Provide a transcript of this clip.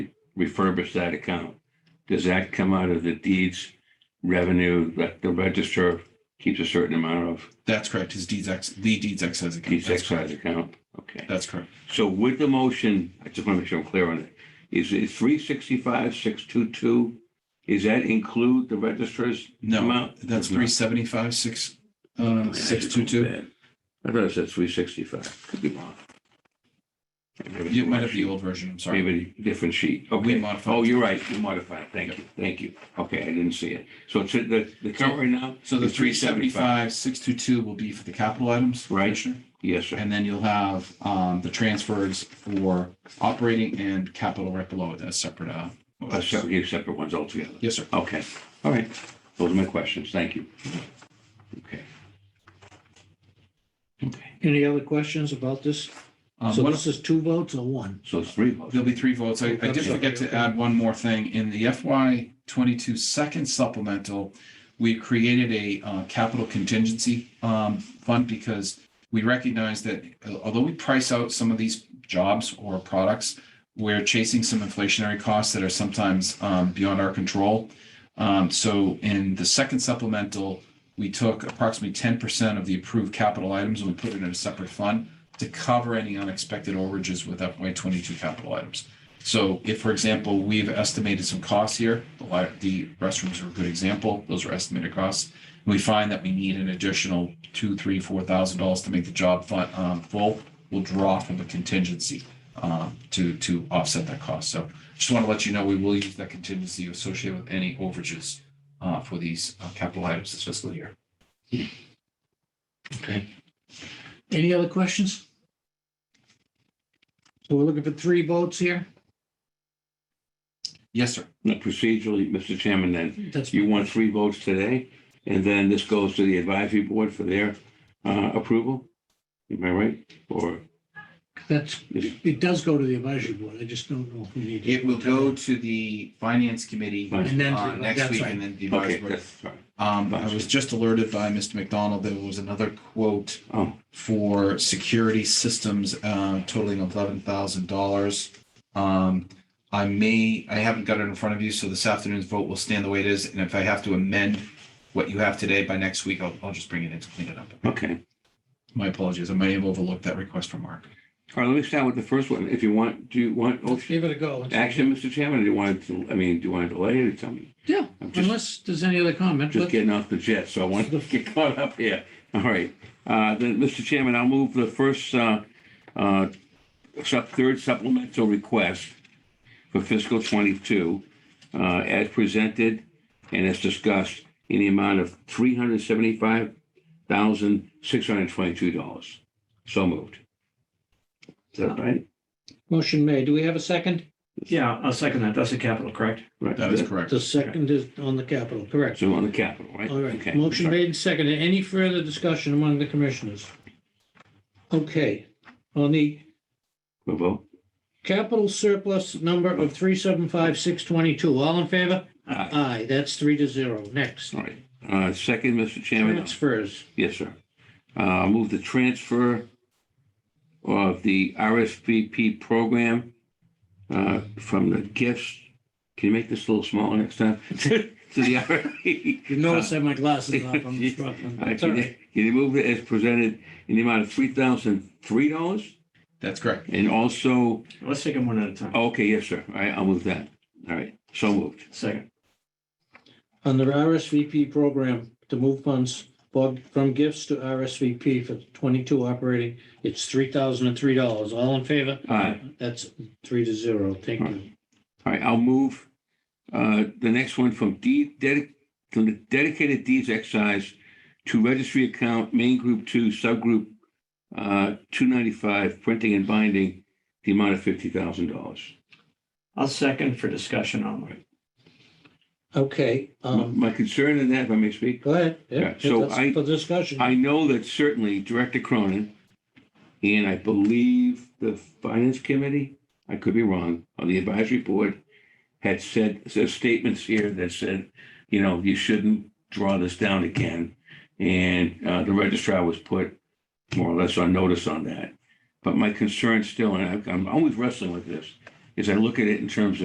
refurbish that account. Does that come out of the deeds revenue that the register keeps a certain amount of That's correct. His deeds ex, the deeds excise account. deeds That's correct. excise account? Okay. That's correct. So with the motion, I just want to make sure I'm clear on it. Is it three sixty-five, six two-two? Is that include the registers? No, Amount? that's No. three seventy-five, six, uh, six two two. I thought it said three sixty-five. Could be wrong. It might have the old version. I'm sorry. Maybe a different sheet. We Okay. modified. Oh, you're right. You modified. Thank you. Thank you. Okay, I didn't see it. So it's the, the current right now? So the is three seventy-five, six two two will be for the capital items. Right. Commissioner. Yes, sir. And then you'll have, um, the transfers for operating and capital right below it as separate, uh. Uh, motions. separate, separate ones altogether. Yes, sir. Okay, all right. Those are my questions. Thank you. Okay. Okay, Any other questions about this? Uh, Um, So one- this is two votes or one? so it's three votes. There'll be three votes. I, I did Okay. forget to add one more thing. In the FY twenty-two second supplemental, we created a, uh, capital contingency, um, fund because we recognize that uh, although we price out some of these jobs or products, we're chasing some inflationary costs that are sometimes, um, beyond our control. Um, so in the second supplemental, we took approximately ten percent of the approved capital items and we put it in a separate fund to cover any unexpected overages with FY twenty-two capital items. So if, for example, we've estimated some costs here, the li- the restrooms are a good example, those are estimated costs. We find that we need an additional two, three, four thousand dollars to make the job fun, um, full, we'll draw from the contingency um, to, to offset that cost. So just want to let you know, we will use that contingency associated with any overages uh, for these uh, capital items this fiscal year. Any other questions? So we're looking for three votes here? Yes, sir. Now, Procedurally, Mr. Chairman, then, That's, you want three votes today, and then this goes to the advisory board for their uh, approval? Am I right? Or that's, is it does go to the advisory board. I just don't know if we need. It will go to the finance committee Fine. And then, uh, next that's week right. and then the advisory Okay, board. that's, sorry. Um, I was just alerted by Mr. McDonald, there was another quote Oh, for security systems uh, totaling eleven thousand dollars. Um, I may, I haven't got it in front of you, so this afternoon's vote will stand the way it is, and if I have to amend what you have today by next week, I'll, I'll just bring it in to clean it up. okay. My apologies, I may have overlooked that request from Mark. All right, let me start with the first one. If you want, do you want Let's motion- give it a go. Let's- action, Mr. Chairman? or Do you want to, I mean, do you want to delay or tell me? Yeah, I'm just- unless there's any other comment. Just but- getting off the jet, so I want to get caught up here. All right. Uh, Then, Mr. Chairman, I'll move the first, uh, uh, sup- third supplemental request for fiscal '22 as presented and as discussed in the amount of $375,622. So moved. Is that right? Motion made. Do we have a second? Yeah, I'll second that. That's a capital, correct? Right. That is correct. The second is on the capital, correct. So on the capital, right? All right, Okay. motion made and seconded. Any further discussion among the commissioners? Okay, on the We'll vote. Capital surplus number of three seven five six twenty-two. All in favor? Aye. Aye, that's three to zero. Next. All right. Uh, Second, Mr. Chairman. Transfers. Yes, sir. Uh, I'll move the transfer of the RSVP program uh, from the gifts, can you make this a little smaller next time? To the RSVP. You notice I have my glasses off. I'm struggling. Uh, It's all Can you- right. can you move it as presented in the amount of $3,003? That's correct. And also, Let's take them one at a time. okay, yes, sir. All right, I'll move that. All right, so moved. Second, Under RSVP program to move funds for- from gifts to RSVP for twenty-two operating, it's three thousand and three dollars. All in favor? Aye. That's three to zero. Thank you. All right, I'll move uh, the next one from deed, dedic- from the dedicated deeds excise to registry account, main group two, subgroup uh, 295, printing and binding, the amount of $50,000. I'll second for discussion only. Okay, My- um, My concern in that, if I may speak, go ahead. Yeah, so that's I- For discussion. I know that certainly Director Cronin and I believe the Finance Committee, I could be wrong, on the advisory board had said, said statements here that said, you know, you shouldn't draw this down again. And uh, the registrar was put more or less on notice on that. But my concern still, and I- I'm always wrestling with this, is I look at it in terms of.